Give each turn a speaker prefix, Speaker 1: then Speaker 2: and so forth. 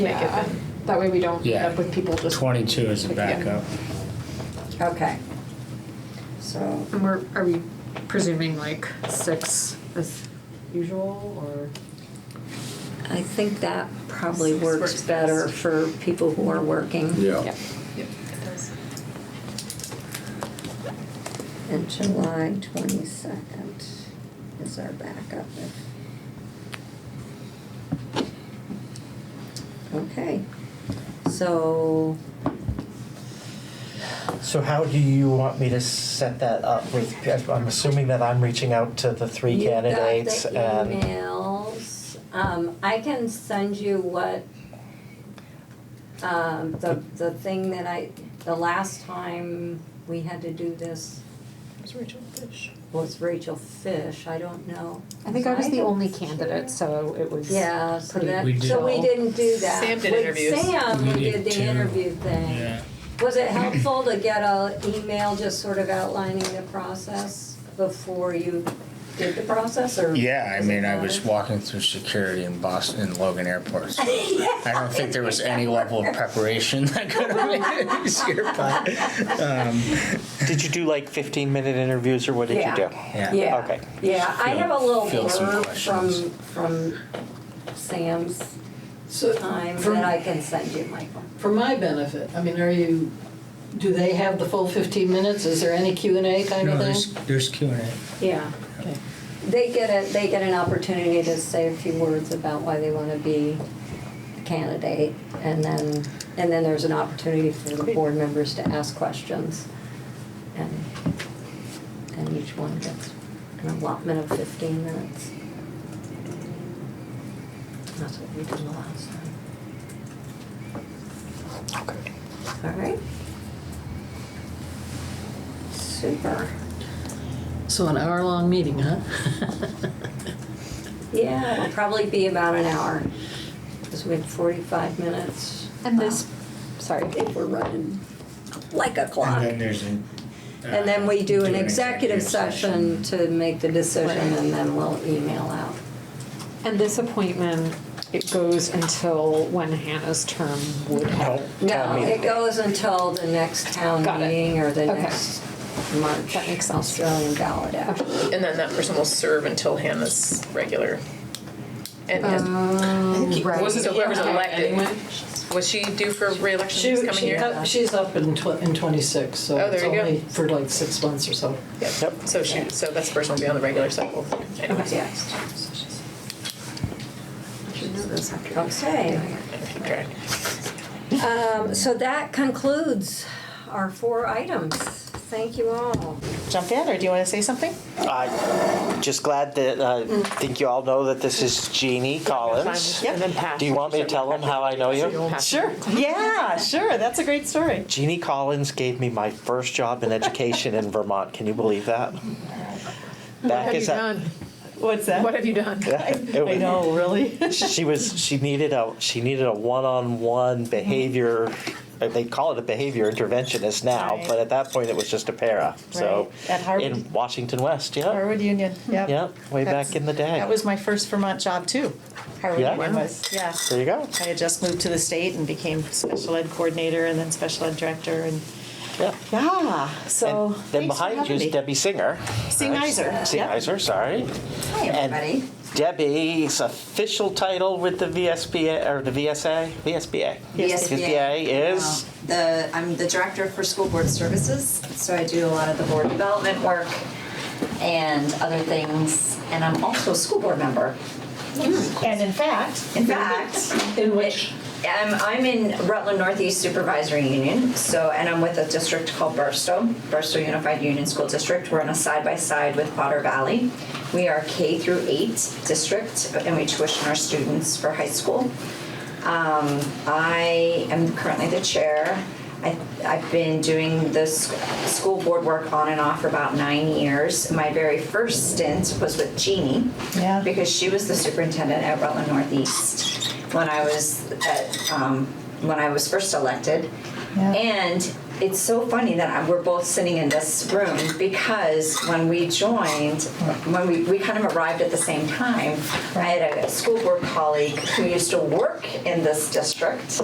Speaker 1: make it then. That way we don't end
Speaker 2: Yeah.
Speaker 1: up with people just.
Speaker 2: 22 is a backup.
Speaker 3: Okay. So,
Speaker 4: And we're, are we presuming like six as usual or?
Speaker 3: I think that probably
Speaker 1: Six
Speaker 3: works
Speaker 1: works
Speaker 3: better
Speaker 1: best.
Speaker 3: for people who are working.
Speaker 5: Yeah.
Speaker 3: And July twenty-second is our backup. Okay, so,
Speaker 6: So how do you want me to set that up with, I'm assuming that I'm reaching out to the three
Speaker 3: you got the
Speaker 6: candidates and,
Speaker 3: emails. Um, I can send you what, um, the, the thing that I, the last time we had to do this was Rachel Fish, I don't know.
Speaker 4: I think I was the
Speaker 3: don't-
Speaker 4: only candidate, so it was.
Speaker 3: Yeah, so
Speaker 4: pretty
Speaker 3: that,
Speaker 2: We
Speaker 3: so we
Speaker 4: chill.
Speaker 3: didn't do that.
Speaker 1: Sam did interviews.
Speaker 3: With Sam, we
Speaker 2: We
Speaker 3: did
Speaker 2: did
Speaker 3: the
Speaker 2: two.
Speaker 3: interview thing.
Speaker 2: Yeah.
Speaker 3: Was it helpful to get a email just sort of outlining the process before you did the process or?
Speaker 2: Yeah, I
Speaker 3: does it
Speaker 2: mean, I was
Speaker 3: matter?
Speaker 2: walking through security in Boston, in Logan Airport. So I don't think there was any level of preparation that could have made it easier, but um,
Speaker 6: did you do like fifteen minute interviews or what did you do?
Speaker 2: yeah.
Speaker 3: Yeah.
Speaker 6: Okay.
Speaker 3: Yeah, I have a little
Speaker 2: Field some
Speaker 3: blurb from,
Speaker 2: questions.
Speaker 3: from Sam's
Speaker 7: So,
Speaker 3: time
Speaker 7: for-
Speaker 3: that I can send you, Michael.
Speaker 7: For my benefit, I mean, are you, do they have the full 15 minutes? Is there any Q and A kind
Speaker 2: No,
Speaker 7: of thing?
Speaker 2: there's, there's Q and A.
Speaker 3: Yeah.
Speaker 7: Okay.
Speaker 3: They get a, they get an opportunity to say a few words about why they wanna be a candidate, and then, and then there's an opportunity for the board members to ask questions. And, and each one gets an allotment of fifteen minutes. That's what we did the last time.
Speaker 6: Okay.
Speaker 3: All right? Super.
Speaker 7: So an hour-long meeting, huh?
Speaker 3: Yeah, it'll probably be about an hour, because we had forty-five minutes.
Speaker 4: And
Speaker 1: um,
Speaker 4: this, sorry,
Speaker 3: I think we're running like a clock.
Speaker 2: And then there's an. uh,
Speaker 3: And then we do an executive session to make the decision,
Speaker 4: Right.
Speaker 3: and then we'll email out.
Speaker 4: and this appointment, it goes until when Hannah's term would have.
Speaker 3: No, it goes until the next town
Speaker 4: Got it.
Speaker 3: meeting or the
Speaker 4: Okay.
Speaker 3: next March
Speaker 4: That makes sense.
Speaker 3: Australian ballot act.
Speaker 1: And then that person will serve until Hannah's regular. And
Speaker 8: Um,
Speaker 1: Um,
Speaker 4: right.
Speaker 1: was so whoever's elected,
Speaker 7: Anyway,
Speaker 1: was she due for reelection this
Speaker 7: She,
Speaker 1: coming
Speaker 7: she,
Speaker 1: year?
Speaker 7: up- she's up in tw- in 26, so
Speaker 1: Oh, there
Speaker 7: it's
Speaker 1: you go.
Speaker 7: only for like six months or so.
Speaker 1: Yep. So she, so that's the person will be on the regular cycle. Anyways,
Speaker 3: Yeah. Okay.
Speaker 1: keep track.
Speaker 3: Um, So that concludes our four items. Thank you all.
Speaker 8: jump in, or do you want to say something?
Speaker 6: I just glad that, I
Speaker 3: Mm.
Speaker 6: think you all know that this is Jeannie Collins.
Speaker 8: Yep. And then pass.
Speaker 6: Do you want me to tell them how I know you?
Speaker 8: Sure. Yeah, sure. That's a great story.
Speaker 6: Jeannie Collins gave me my first job in education in Vermont, can you believe that? Back as a-
Speaker 8: What's that?
Speaker 1: have you done?
Speaker 6: It
Speaker 8: I
Speaker 6: was-
Speaker 8: know, really.
Speaker 6: she was she needed a she needed a one-on-one behavior they call it a behavior interventionist now
Speaker 8: Mm-hmm. Right.
Speaker 6: but at that point it was just a para so
Speaker 8: Right. At Harvard.
Speaker 6: in washington west yeah
Speaker 8: Harvard Union. Yep.
Speaker 6: yeah way
Speaker 8: That's-
Speaker 6: back in the day
Speaker 8: That was my first Vermont job too. Harvard
Speaker 6: Yeah?
Speaker 8: Union was. Yeah.
Speaker 6: there you go
Speaker 8: I had just moved to the state and became special ed coordinator and then special ed director and
Speaker 6: yeah
Speaker 8: yeah. So
Speaker 6: and then
Speaker 8: thanks for
Speaker 6: behind you
Speaker 8: having
Speaker 6: is
Speaker 8: me.
Speaker 6: Debbie Singer.
Speaker 8: Singheiser,
Speaker 6: Right?
Speaker 8: yep.
Speaker 6: Singheiser, sorry.
Speaker 3: Hi, everybody.
Speaker 6: And Debbie's official title with the VSBA or the VSA, VSBA. VSBA is
Speaker 9: The, I'm the director for school board services, so I do a lot of the board development work and other things, and I'm also a school board member.
Speaker 8: And in fact,
Speaker 9: In fact,
Speaker 7: In which,
Speaker 9: I'm, I'm in Rutland Northeast Supervisory Union, so, and I'm with a district called Burstow, Burstow Unified Union School District. We're on a side-by-side with Potter Valley. We are K through eight district, and we tuition our students for high school. Um, I am currently the chair. I, I've been doing this school board work on and off for about nine years. My very first stint was with Jeannie.
Speaker 8: Yeah.
Speaker 9: Because she was the superintendent at Rutland Northeast when I was at, um, when I was first elected.
Speaker 8: Yeah.
Speaker 9: And it's so funny that I- we're both sitting in this room because when we joined, when we, we kind of arrived at the same time, I had a school board colleague who used to work in this district